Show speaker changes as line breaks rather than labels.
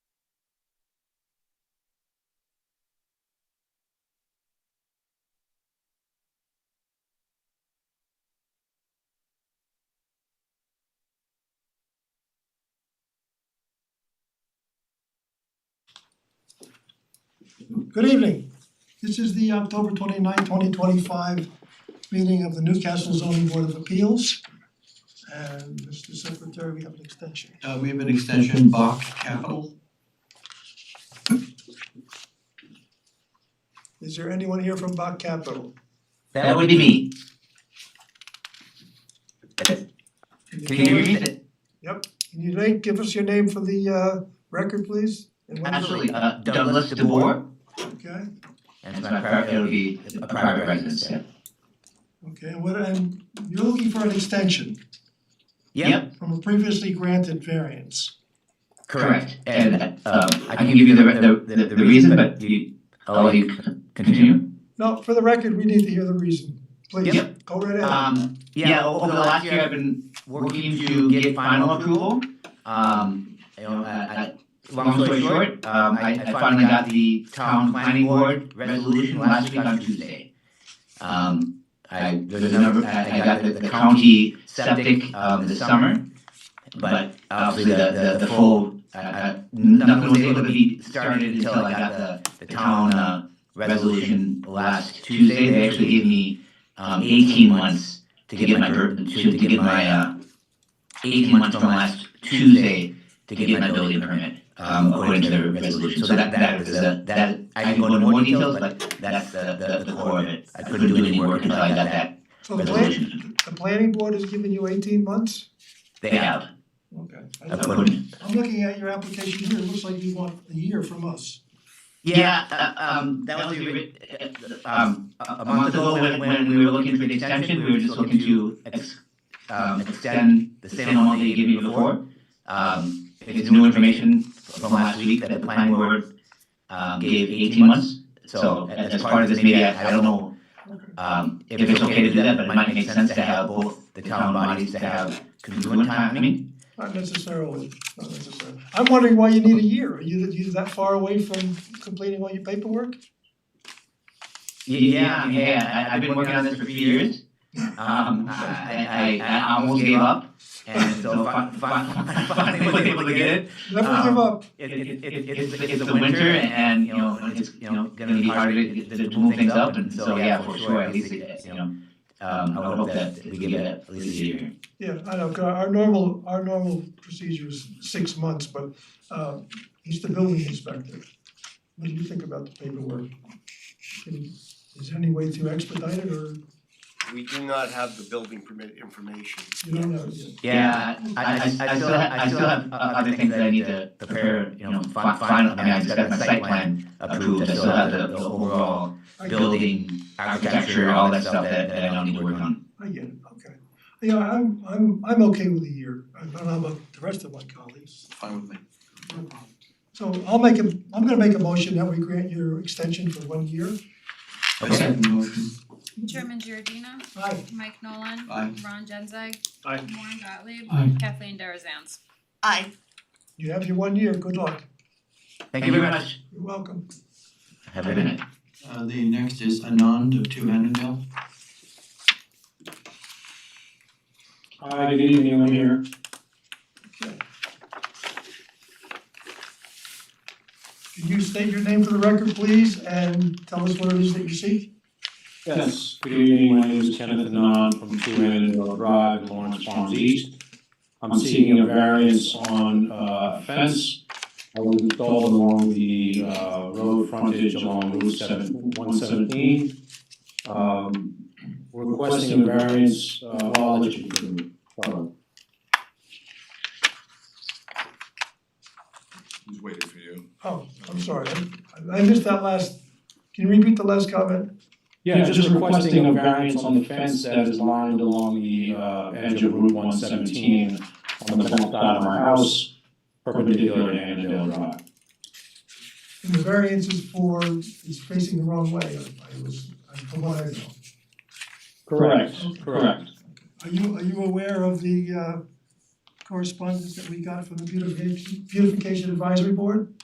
Good evening. This is the October 29, twenty-five meeting of the Newcastle zoning board of appeals. And Mr. Secretary, we have an extension.
Uh we have an extension, Bach Capital.
Is there anyone here from Bach Capital?
That would be me. Can you
Can
read it?
you like give us your name for the uh record, please? And what is it?
Absolutely, uh, Douglas DeBoer,
Okay,
that's my private, it'll be a private residence, yeah.
okay, and what and you're looking for an extension
Yep,
from a previously granted variance.
correct, and, um, I can give you the, the, the, the reason, but you, I'll let you con- continue.
No, for the record, we need to hear the reason, please,
Yep.
go right ahead.
Um, yeah, over the last year, I've been working to get final approval. Um, you know, I, I, long story short, um, I, I finally got the town planning board resolution last week on Tuesday. Um, I, there's another, I, I got the, the county septic, um, this summer. But obviously, the, the, the full, I, I, nothing was able to be started until I got the, the town, uh, resolution last Tuesday. They actually gave me, um, eighteen months to get my, ver- to, to get my, uh, eighteen months from last Tuesday to get my building permit, um, according to the resolution. So that, that is a, that, I can go into more details, but that's the, the, the core of it. I couldn't do any work until I got that
So the plan,
resolution.
the planning board has given you eighteen months?
They have,
Okay. I-
according,
I'm looking at your application here, it looks like you want a year from us.
yeah, uh, um, that was, the ori- uh, um, a a month ago, when, when we were looking for the extension, we were just looking to ex- um, extend the same amount they gave you before. Um, it's new information from last week that the planning board, um, gave eighteen months. So as as part of this, maybe, I I don't know, um, if it's okay to do that, but it might make sense to have both the town bodies to have congruent timing.
Not necessarily, not necessarily. I'm wondering why you need a year, are you, you that far away from completing all your paperwork?
Yeah, yeah, I, I've been working on this for three years. Um, I, I, I almost gave up, and so fin- fin- finally was able to get it.
Never give
Um,
up,
it, it, it, it's, it's the winter and, you know, it's, you know, gonna be hard to, to to move things up, and so, yeah, for sure, at least, it- you know, um, I would hope that we get at least a year.
yeah, I know, 'cause our normal, our normal procedure is six months, but uh he's the building inspector. What do you think about the paperwork? Can- Is there any way to expedite it, or
We do not have the building permit information.
you don't know yet?
Yeah, I, I, I still, have- I still have other things that I need to prepare, you know, fi- final, I mean, I just got my site plan approved, I still have the, the overall
I get it.
building, architecture, all that stuff that, that I don't need to work on.
I get it, okay. Yeah, I'm I'm I'm okay with a year, I don't know about the rest of my colleagues.
Fine with me.
So I'll make a, I'm gonna make a motion that we grant your extension for one year.
I second the motion.
Chairman Giordina,
Aye.
Mike Nolan.
Aye.
Ron Genzeg.
Aye.
Warren Gottlieb.
Aye.
Kathleen Darazans.
Aye.
You have your one year, good luck.
Thank you very much.
You're welcome.
Have a good night.
Uh the next is Anand of Two Annandale.
Hi, good evening, I'm here.
Can you state your name for the record, please, and tell us what it is that you seek?
Yes. Good evening, my name is Kenneth Anon from Two Annandale Drive, Lawrence Farms East. I'm seeking a variance on uh, a fence that was installed along the uh, road frontage along Route seven, one seventeen. Um, we're Requesting a variance, uh, I'll let you continue. Sorry.
He's waiting for you.
Oh, I'm sorry, I I missed that last, can you repeat the last comment?
Yeah, just requesting a variance on the fence that is lined along the uh, edge of Route one seventeen on the back side of my house, perpendicular to Annandale Drive.
And the variance is for, is facing the wrong way, I I was, I- from what I know.
Correct,
Okay.
correct.
Are you, are you aware of the uh correspondence that we got from the beautification, beautification advisory board?